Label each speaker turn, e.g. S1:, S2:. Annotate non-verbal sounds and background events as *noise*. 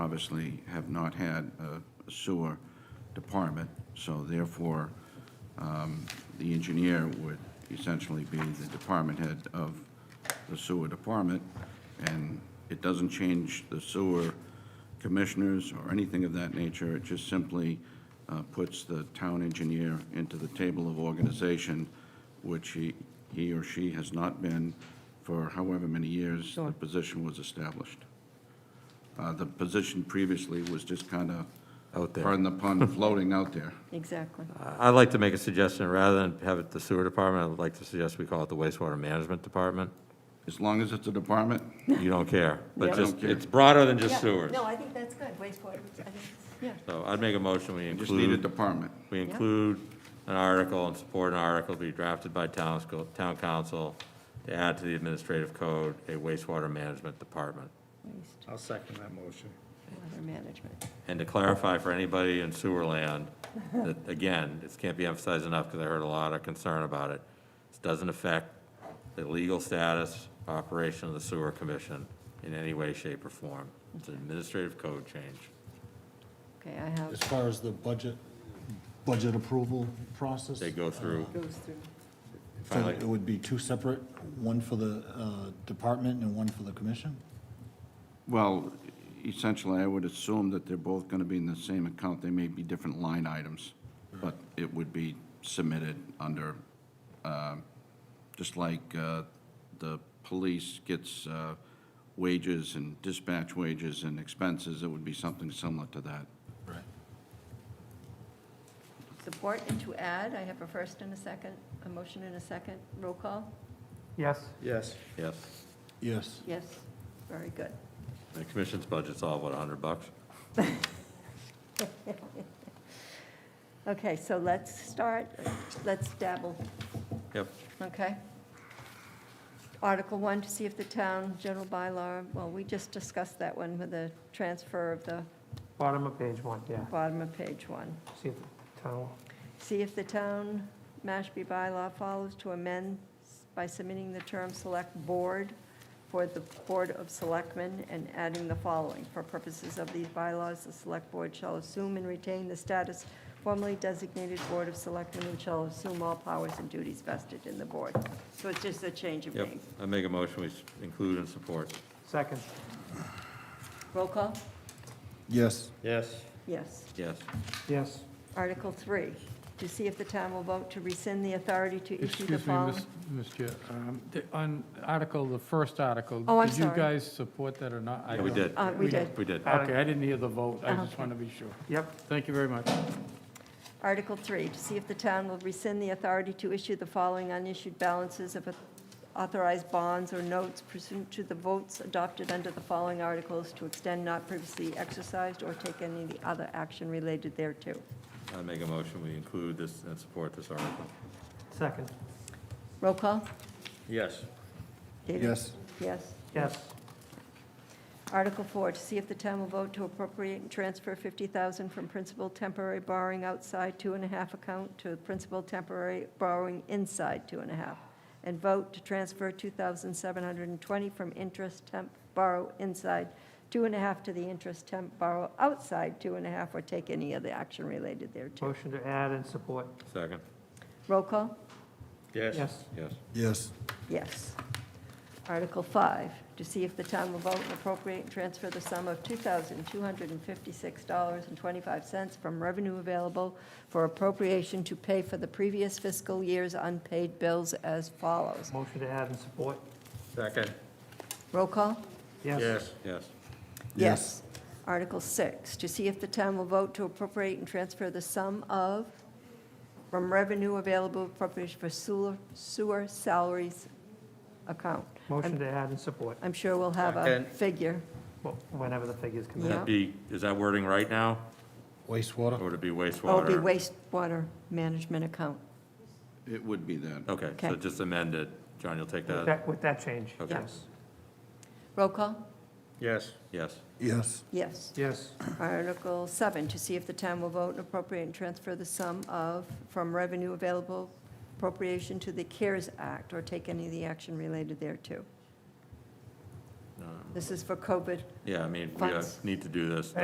S1: obviously have not had a sewer department, so therefore, um, the engineer would essentially be the department head of the sewer department, and it doesn't change the sewer commissioners or anything of that nature. It just simply uh, puts the town engineer into the table of organization, which he, he or she has not been for however many years the
S2: Sure.
S1: position was established. Uh, The position previously was just kind of,
S3: Out there.
S1: pardon the pun, *laughs* floating out there.
S2: Exactly.
S3: I- I'd like to make a suggestion, rather than have it the sewer department, I'd like to suggest we call it the wastewater management department.
S1: As long as it's a department,
S3: You don't care,
S2: Yeah.
S3: but
S1: I don't
S3: just,
S1: care.
S3: it's broader than just sewers.
S2: No, I think that's good, wastewater, I think, yeah.
S3: So I'd make a motion, we
S1: you just need a
S3: include,
S1: department.
S3: we include an article and support an article to be drafted by town, sco- town council to add to the administrative code a wastewater management department.
S4: I'll second that motion.
S2: Wastewater management.
S3: And to clarify for anybody in sewer land, that, again, this can't be emphasized enough, because I heard a lot of concern about it. This doesn't affect the legal status, operation of the sewer commission in any way, shape, or form. It's an administrative code change.
S2: Okay, I have,
S5: As far as the budget, budget approval process?
S3: They go through,
S2: goes through,
S5: so It would be two separate, one for the uh, department and one for the commission?
S1: Well, essentially, I would assume that they're both going to be in the same account. They may be different line items, but it would be submitted under, um, just like uh, the police gets uh, wages and dispatch wages and expenses, it would be something similar to that.
S5: Right.
S2: support and to add, I have a first and a second, a motion and a second, roll call?
S6: Yes,
S4: Yes.
S3: yes.
S5: Yes.
S2: Yes, very good.
S3: The commission's budget's all, what, hundred bucks?
S2: Okay, so let's start, let's dabble,
S3: Yep,
S2: okay? Article one, to see if the town general bylaw, well, we just discussed that one with the transfer of the
S6: bottom of page one, yeah.
S2: bottom of page one.
S6: See if the town,
S2: See if the town Mashpee bylaw follows to amend by submitting the term "select board" for the Board of Selectmen and adding the following. For purposes of these bylaws, the select board shall assume and retain the status formerly designated Board of Selectmen and shall assume all powers and duties vested in the board. So it's just a change of
S3: yep.
S2: name.
S3: I make a motion, we s- include and support.
S6: second,
S2: Roll call?
S5: Yes.
S4: Yes.
S2: Yes.
S3: Yes,
S6: yes.
S2: Article three, to see if the town will vote to rescind the authority to issue the
S7: Excuse me,
S2: following.
S7: Miss- Miss Chair, um, the- on Article, the first article.
S2: Oh, I'm
S7: Did
S2: sorry.
S7: you guys support that or not? I
S3: Yeah, we
S7: don't-
S3: did.
S2: Uh, we did.
S3: we did.
S7: Okay, I didn't hear the vote. I
S2: Oh, Okay.
S7: just want to be sure.
S6: Yep,
S7: Thank you very much.
S2: Article 3, to see if the town will rescind the authority to issue the following unissued balances of authorized bonds or notes pursuant to the votes adopted under the following articles to extend not previously exercised or take any other action related thereto.
S3: I make a motion, we include this and support this article.
S6: second,
S2: Roll call?
S4: Yes.
S2: David?
S5: Yes.
S2: Yes.
S6: yes,
S2: Article 4, to see if the town will vote to appropriate and transfer 50000 from principal temporary borrowing outside two and a half account to principal temporary borrowing inside two and a half, and vote to transfer 2720 from interest temp borrow inside two and a half to the interest temp borrow outside two and a half, or take any other action related thereto.
S6: motion to add and support,
S3: Second,
S2: Roll call?
S4: Yes.
S6: yes,
S3: yes.
S5: Yes.
S2: Yes. Article 5, to see if the town will vote and appropriate and transfer the sum of $2,256.25 from revenue available for appropriation to pay for the previous fiscal year's unpaid bills as follows.
S6: motion to add and support,
S4: Second.
S2: Roll call?
S6: yes,
S3: Yes,
S5: Yes.
S2: Article 6, to see if the town will vote to appropriate and transfer the sum of, from revenue available appropriation for sewer- sewer salaries account.
S6: motion to add and support,
S2: I'm sure we'll have a
S4: Second.
S2: figure.
S6: Well, whenever the figures come
S3: Would
S6: in.
S2: Yeah.
S3: that be, is that wording right now, or
S5: Wastewater?
S3: would it be
S2: Oh, it'd be
S3: wastewater?
S2: wastewater management account.
S1: It would be that.
S3: Okay, so
S2: Okay.
S3: just amend it. John, you'll take
S6: With
S3: that?
S6: that, with that change,
S3: Okay.
S6: yes,
S2: Roll call?
S4: Yes.
S3: Yes,
S5: Yes.
S2: Yes.
S6: yes,
S2: Article seven, to see if the town will vote and appropriate and transfer the sum of, from revenue available appropriation to the CARES Act, or take any of the action related thereto. This is for COVID
S3: Yeah, I mean, we uh,
S2: Funds.
S3: need to do this.